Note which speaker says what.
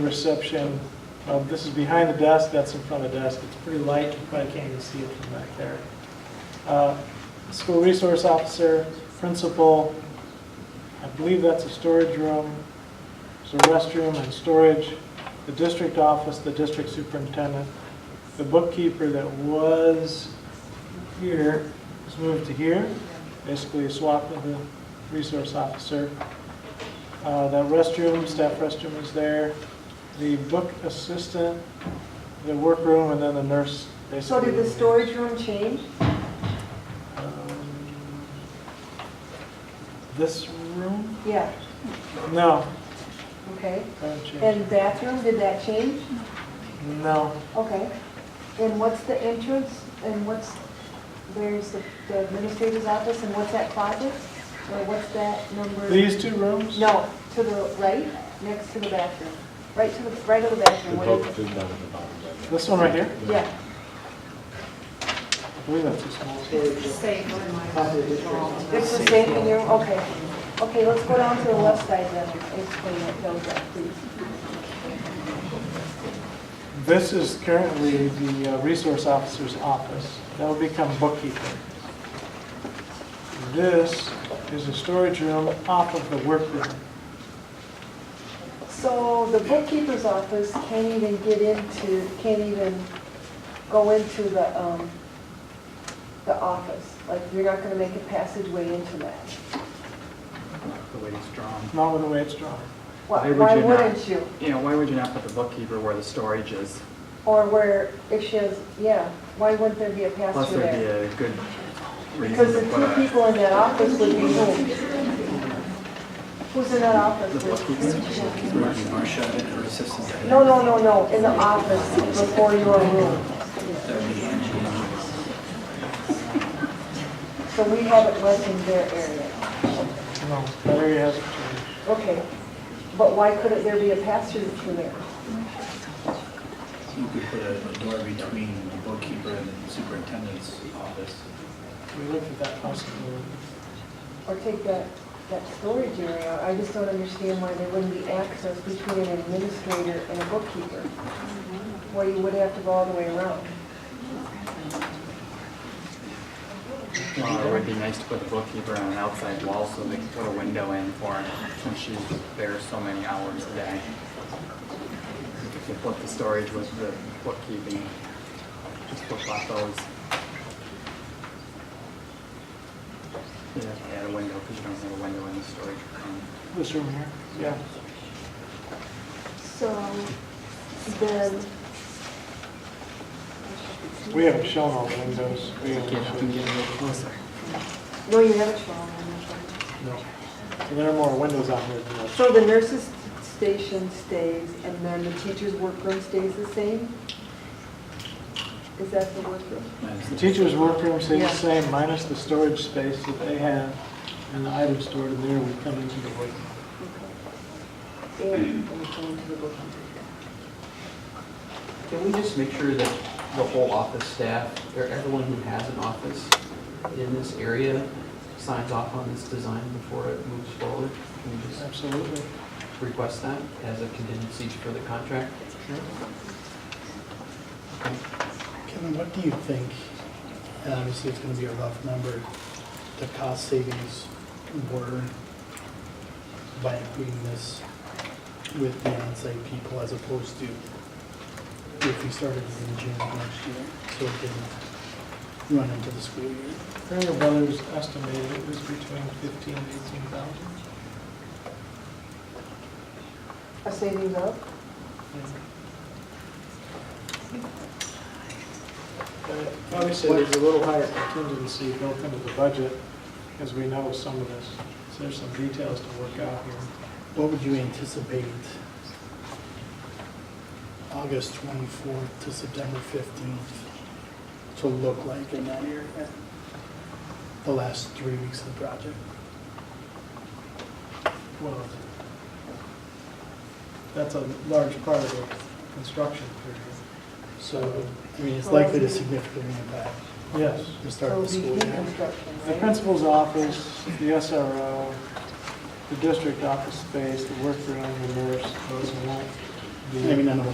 Speaker 1: reception. Um, This is behind the desk, that's in front of the desk. It's pretty light, you probably can't even see it from back there. Uh, School resource officer, principal, I believe that's a storage room. There's a restroom and storage, the district office, the district superintendent, the bookkeeper that was here was moved to here, basically a swap of the resource officer. Uh, That restroom, staff restroom is there, the book assistant, the workroom, and then the nurse.
Speaker 2: So
Speaker 1: basically.
Speaker 2: did the storage room change?
Speaker 1: Um, This room?
Speaker 2: Yeah,
Speaker 1: No.
Speaker 2: okay.
Speaker 1: haven't changed.
Speaker 2: And bathroom, did that change?
Speaker 1: No.
Speaker 2: Okay. And what's the entrance, and what's, there's the the administrator's office, and what's that closet? Or what's that number?
Speaker 1: These two rooms?
Speaker 2: No, to the right, next to the bathroom, right to the, right of the bathroom. What is it?
Speaker 1: This one right here?
Speaker 2: Yeah,
Speaker 1: I believe that's a small.
Speaker 2: it's the same in your, okay. Okay, let's go down to the left side then, and explain it, those, up, please.
Speaker 1: This is currently the uh, resource officer's office. That will become bookkeeper. This is a storage room off of the workroom.
Speaker 2: So the bookkeeper's office can't even get into, can't even go into the, um, the office. Like, you're not gonna make a passageway into that.
Speaker 3: the way it's drawn.
Speaker 1: Not with the way it's drawn.
Speaker 2: Why,
Speaker 3: Why would
Speaker 2: why
Speaker 3: you not?
Speaker 2: wouldn't you?
Speaker 3: You know, why would you not put the bookkeeper where the storage is?
Speaker 2: Or where, if she has, yeah, why wouldn't there be a
Speaker 3: Plus,
Speaker 2: passageway
Speaker 3: there'd be
Speaker 2: there?
Speaker 3: a good reason
Speaker 2: Because
Speaker 3: to
Speaker 2: the
Speaker 3: put
Speaker 2: two
Speaker 3: a,
Speaker 2: people in that office would be who? Who's in that
Speaker 3: the
Speaker 2: office?
Speaker 3: bookkeeper. Marcia, her assistant.
Speaker 2: No, no, no, no, in the office before your room. So we have it less in their area.
Speaker 1: No, that area hasn't changed.
Speaker 2: Okay, but why couldn't there be a pass-through through there?
Speaker 4: You could put a a door between the bookkeeper and the superintendent's office.
Speaker 1: We looked at that possibility.
Speaker 2: Or take that, that storage area? I just don't understand why there wouldn't be access between an administrator and a bookkeeper. Why you would have to go all the way around.
Speaker 3: Well, it would be nice to put the bookkeeper on an outside wall so they could put a window in for her since she's there so many hours a day. If you put the storage with the bookkeeping, just flip flop those. You have to add a window because you don't have a window in the storage room.
Speaker 1: This room here? Yeah.
Speaker 2: So then,
Speaker 1: We haven't shown all the windows. We haven't
Speaker 3: Get up and
Speaker 1: shown-
Speaker 3: get a little closer.
Speaker 2: no, you haven't shown them.
Speaker 1: No. So There are more windows out here than this.
Speaker 2: So the nurses' station stays, and then the teachers' workroom stays the same? Is that the workroom?
Speaker 1: The teacher's workroom stays the same, minus the storage space that they have, and the items stored in there would come into the workroom.
Speaker 2: Okay. And we go into the workroom.
Speaker 5: Can we just make sure that the whole office staff, or everyone who has an office in this area signs off on this design before it moves forward? Can we just
Speaker 1: Absolutely.
Speaker 5: request that as a contingency for the contract?
Speaker 6: Kevin, what do you think, and obviously it's gonna be a rough number, the cost savings were by including this with the onsite people as opposed to if we started it in June of next year, so it didn't run into the school year?
Speaker 1: Farrell Brothers estimated it was between 15 and 18,000.
Speaker 2: A savings of?
Speaker 1: But Obviously, there's a little higher contingency built into the budget, as we know some of this. So there's some details to work out here.
Speaker 6: What would you anticipate August twenty-fourth to September fifteenth to look like in that area? The last three weeks of the project?
Speaker 1: Well, that's a large part of the construction period.
Speaker 6: So, I mean, it's likely to significantly impact
Speaker 1: Yes.
Speaker 6: the start
Speaker 2: So
Speaker 6: of the
Speaker 2: it'd be
Speaker 6: school year.
Speaker 2: reconstruction,
Speaker 1: The
Speaker 2: right?
Speaker 1: principal's office, the SRO, the district office space, the workroom, the nurse, those won't the.
Speaker 6: I mean, I know